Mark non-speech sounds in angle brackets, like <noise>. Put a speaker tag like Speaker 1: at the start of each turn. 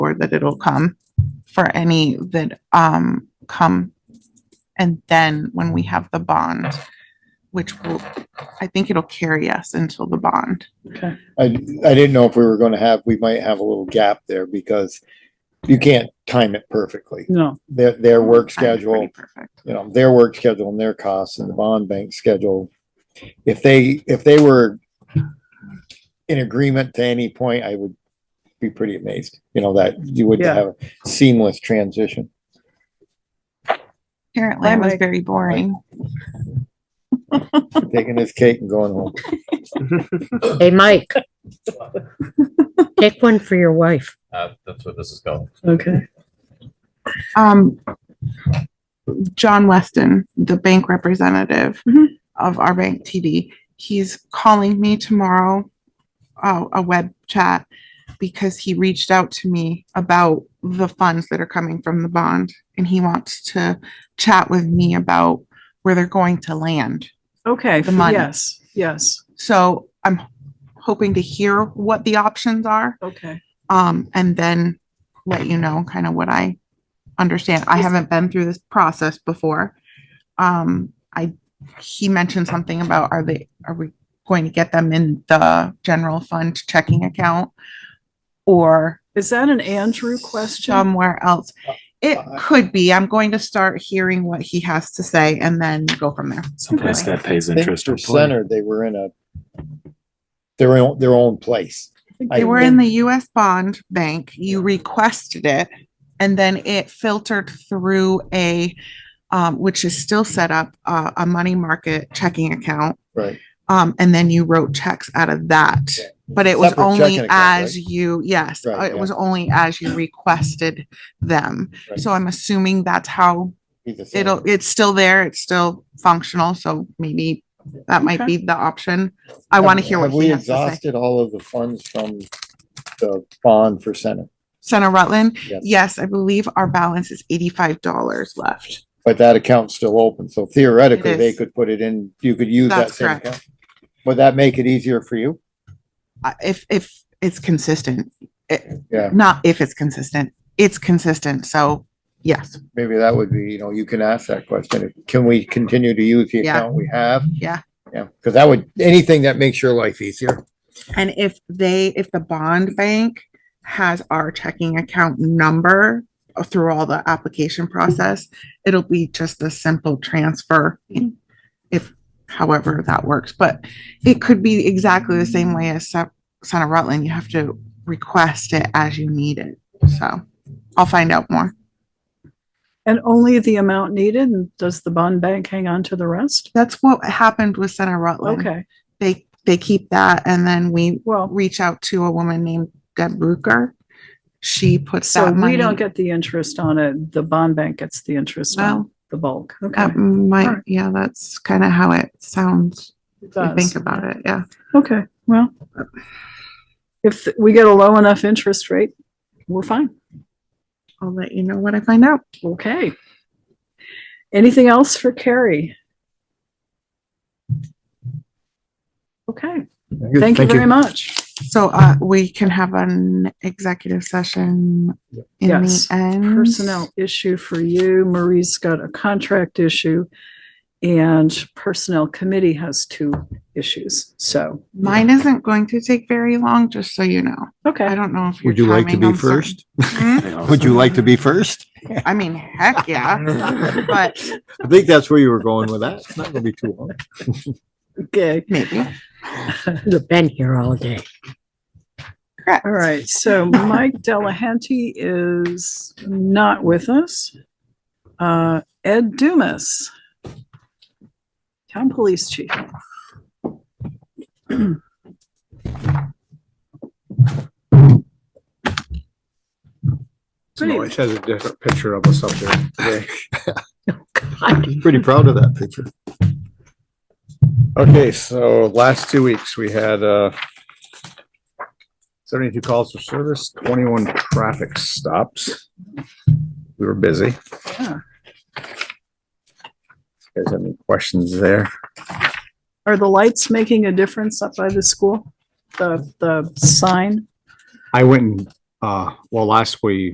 Speaker 1: straightforward that it'll come for any that um come. And then when we have the bond, which will, I think it'll carry us until the bond.
Speaker 2: Okay.
Speaker 3: I, I didn't know if we were gonna have, we might have a little gap there because you can't time it perfectly.
Speaker 2: No,
Speaker 3: Their, their
Speaker 1: Time
Speaker 3: work
Speaker 1: is
Speaker 3: schedule,
Speaker 1: pretty Perfect.
Speaker 3: you know, their work schedule and their costs and the bond bank schedule. If they, if they were in agreement to any point, I would be pretty amazed, you know, that you would
Speaker 2: Yeah.
Speaker 3: have a seamless transition.
Speaker 1: Apparently I
Speaker 2: Bye,
Speaker 1: was
Speaker 2: Mike.
Speaker 1: very boring.
Speaker 3: Taking this cake and going home.
Speaker 4: Hey, Mike. Take one for your wife.
Speaker 5: Uh, that's where this is going.
Speaker 2: okay.
Speaker 1: Um, John Weston, the bank representative
Speaker 2: Mhm.
Speaker 1: of our bank TD, he's calling me tomorrow, uh, a web chat, because he reached out to me about the funds that are coming from the bond, and he wants to chat with me about where they're going to land.
Speaker 2: Okay,
Speaker 1: The money.
Speaker 2: yes, yes,
Speaker 1: So I'm hoping to hear what the options are,
Speaker 2: okay.
Speaker 1: um, and then let you know kind of what I understand. I haven't been through this process before. Um, I, he mentioned something about, are they, are we going to get them in the general fund checking account? Or
Speaker 2: Is that an Andrew question?
Speaker 1: somewhere else? It could be. I'm going to start hearing what he has to say and then go from there.
Speaker 6: Someplace that pays
Speaker 3: I think
Speaker 6: interest.
Speaker 3: for
Speaker 6: or play.
Speaker 3: center, they were in a their own, their own place.
Speaker 1: They were in the US bond bank, you requested it, and then it filtered through a, um, which is still set up, uh, a money market checking account.
Speaker 3: Right.
Speaker 1: Um, and then you wrote checks out of that, but it was
Speaker 3: Separate checking
Speaker 1: only
Speaker 3: account,
Speaker 1: as
Speaker 3: right?
Speaker 1: you, yes, uh,
Speaker 3: Right,
Speaker 1: it
Speaker 3: yeah.
Speaker 1: was only as you requested them.
Speaker 3: Right.
Speaker 1: So I'm assuming that's how
Speaker 3: Be the same.
Speaker 1: it'll, it's still there, it's still functional, so maybe that might
Speaker 2: Okay.
Speaker 1: be the option. I want to
Speaker 3: Have-
Speaker 1: hear what
Speaker 3: have we
Speaker 1: he has to say.
Speaker 3: Exhausted all of the funds from the bond for Senate,
Speaker 1: Center Rutland.
Speaker 3: Yes.
Speaker 1: Yes, I believe our balance is eighty-five dollars left.
Speaker 3: but that account's still open, so theoretically,
Speaker 1: It
Speaker 3: they
Speaker 1: is.
Speaker 3: could put it in, you could use that
Speaker 1: That's
Speaker 3: same
Speaker 1: correct.
Speaker 3: account. Would that make it easier for you?
Speaker 1: Uh, If, if it's consistent,
Speaker 3: Yeah,
Speaker 1: not if it's consistent, it's consistent. So yes,
Speaker 3: maybe that would be, you know, you can ask that question, can we continue to use the
Speaker 1: Yeah.
Speaker 3: account we have?
Speaker 1: Yeah.
Speaker 3: Yeah, because that would, anything that makes your life easier,
Speaker 1: and if they, if the bond bank has our checking account number through all the application process, it'll be just a simple transfer if, however that works. But it could be exactly the same way as Sen- Center Rutland. You have to request it as you need it. So I'll find out more.
Speaker 2: And only the amount needed, and does the bond bank hang on to the rest?
Speaker 1: That's what happened with Center Rutland.
Speaker 2: Okay,
Speaker 1: They, they keep that and then we
Speaker 2: well,
Speaker 1: reach out to a woman named Deb Rucker. She puts
Speaker 2: so
Speaker 1: that money.
Speaker 2: we don't get the interest on it, the bond bank gets the interest on
Speaker 1: Well, um,
Speaker 2: the bulk, okay?
Speaker 1: that might,
Speaker 2: Alright.
Speaker 1: yeah, that's kind of how it sounds.
Speaker 2: it
Speaker 1: if you
Speaker 2: does.
Speaker 1: Think about it, yeah.
Speaker 2: Okay, well, if we get a low enough interest rate, we're fine,
Speaker 1: I'll let you know what I find out.
Speaker 2: okay. Anything else for Carrie? Okay, thank you very much.
Speaker 1: So, uh, we can have an executive session in the
Speaker 2: Yes.
Speaker 1: end.
Speaker 2: personnel issue for you. Marie's got a contract issue. And personnel committee has two issues. So,
Speaker 1: Mine isn't going to take very long, just so you know. I
Speaker 2: okay.
Speaker 1: don't know if. Would you like to be first?
Speaker 6: Yeah.
Speaker 3: would you like to be first?
Speaker 1: Hmm? I mean, heck <laughs> yeah, but
Speaker 3: I think that's where you were going with that, it's not gonna be too long.
Speaker 2: Okay.
Speaker 1: maybe.
Speaker 4: You've been here all day.
Speaker 1: Correct.
Speaker 2: All right. So Mike Delahanty is not with us. Uh, Ed Dumas, town police chief. Pretty-
Speaker 7: Noise has a different picture of us up there today.
Speaker 3: Pretty proud of that picture.
Speaker 7: Okay, so last two weeks, we had, uh, seventy-two calls for service, twenty-one traffic stops. We were busy.
Speaker 2: Yeah.
Speaker 7: You Guys have any questions there?
Speaker 2: Are the lights making a difference up by the school? The, the sign?
Speaker 7: I went and Uh, well, last we